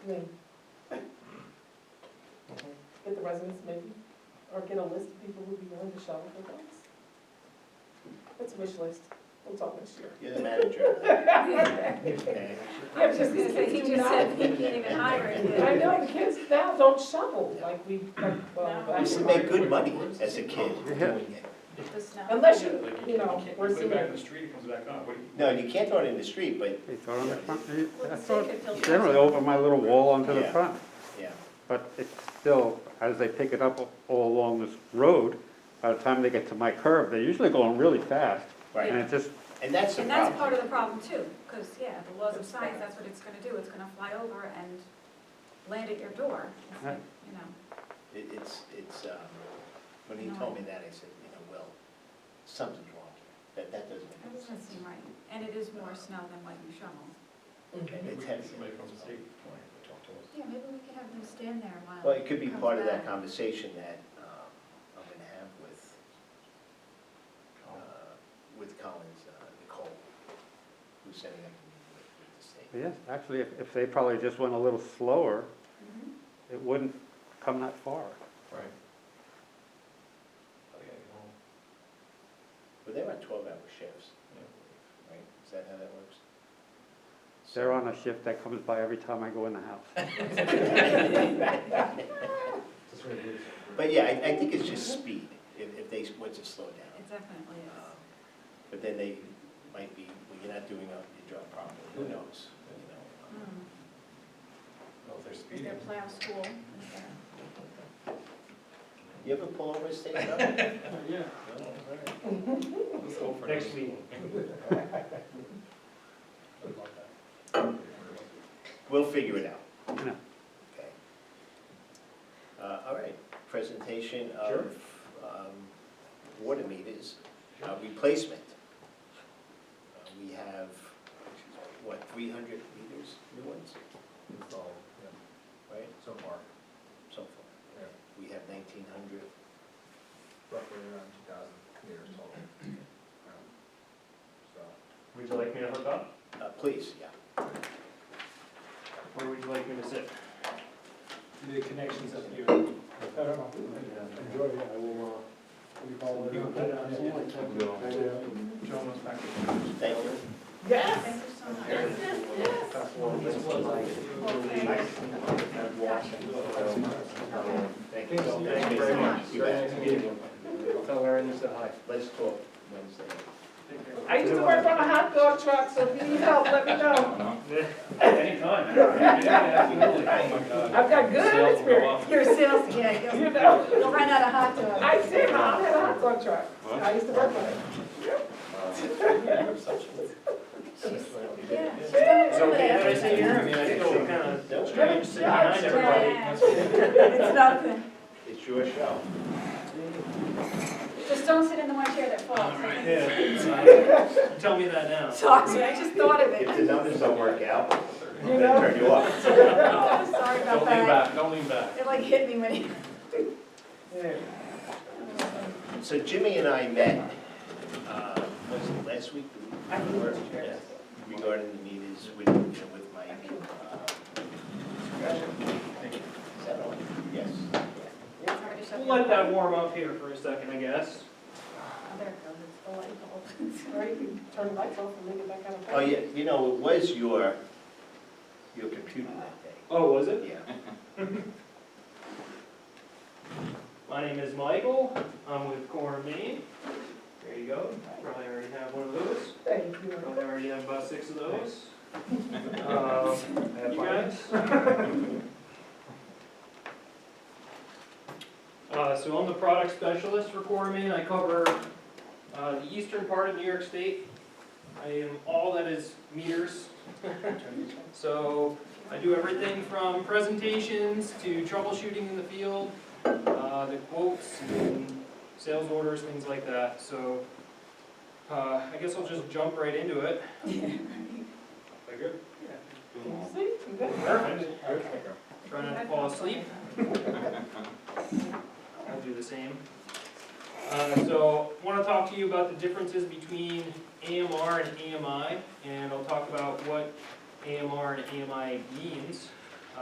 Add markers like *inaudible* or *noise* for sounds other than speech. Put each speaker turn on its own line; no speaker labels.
*clears throat*
name. Get the residents maybe, or get a list of people who'd be willing to shovel their dumps. That's a wish list, we'll talk next year. *laughs*
You're the manager.
Yeah,
Okay.
just these kids
He
do
just
not,
said he can't even hire you.
I know, the kids now don't shovel like we, like, well.
No.
I used to make good money as a kid doing it.
Just now.
Unless you,
Like,
you know,
can't-
we're
You put it back in
seeing,
the street, it comes back on. What do you-
No, you can't throw it in the street, but,
They throw it on the front,
Well,
I
the
throw
state
it
could filter
generally
it.
over my little wall onto the
Yeah.
front,
yeah.
but it's still, as they pick it up all along this road, by the time they get to my curb, they're usually going really fast.
Right.
And it just,
And that's the
And that's part
problem.
of the problem too, because, yeah, the laws of science, that's what it's gonna do, it's gonna fly over and land at your door. It's like, You know,
It- It's, it's, um, when he told me that, I said, you know, well, something's wrong here. That, that doesn't
that
make
doesn't
sense.
seem right, and it is more snow than what you shovel.
And it's
Maybe
heavy.
Somebody from the state, wanted to
Uh,
talk to us.
Yeah, maybe we could have them stand there while.
Well, it could be
comes
part of that
back.
conversation that um, I'm going to have with, uh, with Collins, uh, Nicole, who's setting up the meeting with with the state.
yes, actually, if, if they probably just went a little slower,
Mhm.
it wouldn't come that far.
Right. I gotta get home.
But they're on 12-hour shifts,
Yeah.
right? Is that how that works?
They're on *laughs* a shift that comes by every time I go in the house.
But yeah, I, I think it's just speed, if, if they want to slow down.
It definitely
Um,
is.
But then they might be, well, you're not doing your job properly, who knows? you know? um,
Mm.
Well,
Oh,
if they're
Is there
*laughs*
speeding.
plow school? Is there-
You ever pull over a state road?
Yeah.
*laughs* No?
Let's go for
Next
it.
*laughs*
We'll figure it out.
Yeah.
Okay. Uh, all right, presentation
Sure.
of, um, water meters, uh, replacement. Uh, We have, what, three hundred meters, new ones,
Installed, yeah,
right,
so far,
so far?
Yeah.
We have nineteen hundred,
roughly around two thousand meters total. Um, So,
Would you like me to hook up,
uh, please, yeah.
or would you like me to sit?
the connections up here.
Enjoy, yeah, I will, uh, we call it.
John was back.
Thank you.
yes,
Thank you so much.
Thank
Thank you very much.
You bet.
Tell Aaron to say hi.
Let's talk Wednesday.
I used to work on a hot dog truck, so if you need help, let me know.
*laughs* Anytime. Absolutely. Oh, my God.
I've got good
Sales will go
experience,
up.
Your sales, yeah,
you
you'll,
know?
*laughs* you'll run out of hot dogs.
I did, my mom had a hot dog truck, I used to work on it.
Yeah, she's done
It's okay that I
it.
sit here, I mean, I feel kind of strange sitting behind everybody.
Yeah. It's nothing.
It's your show.
Just don't sit in the one chair that falls.
Yeah. Tell me that now.
Sorry, I just thought of it. *laughs*
If the numbers don't work out,
You
they
know?
turn you off.
Oh, Sorry
Don't
about
lean
that.
back, don't lean back.
It like hit me when he.
Yeah.
So Jimmy and I met, uh, was it last week?
I think it's
Yeah.
great.
Regarding the meters with, you know, with Mike. uh, Is that all? Yes.
We'll let that warm up here for a second, I guess.
Oh, There it goes, it's the light bulb.
Or you can turn the lights off and make it that kind of.
Oh, yeah, you know, it was your, your computer that
Oh, was it?
day. Yeah.
My name is Michael, I'm with Core Maine. There you go, probably already have one of those.
Thank you.
Probably already have about six of *laughs* those. Um, You guys? *laughs* Uh, so I'm the product specialist for Corman, I cover, uh, the eastern part of New York State. I am all that is meters. *laughs* So I do everything from presentations to troubleshooting in the field, uh, the quotes and sales orders, things like that, so, uh, I guess I'll just jump right into it. Is that good?
Can you see? You good?
Perfect. Try not to fall asleep. I'll do the same. Uh, so, want to talk to you about the differences between AMR and AMI, and I'll talk about what AMR and AMI means.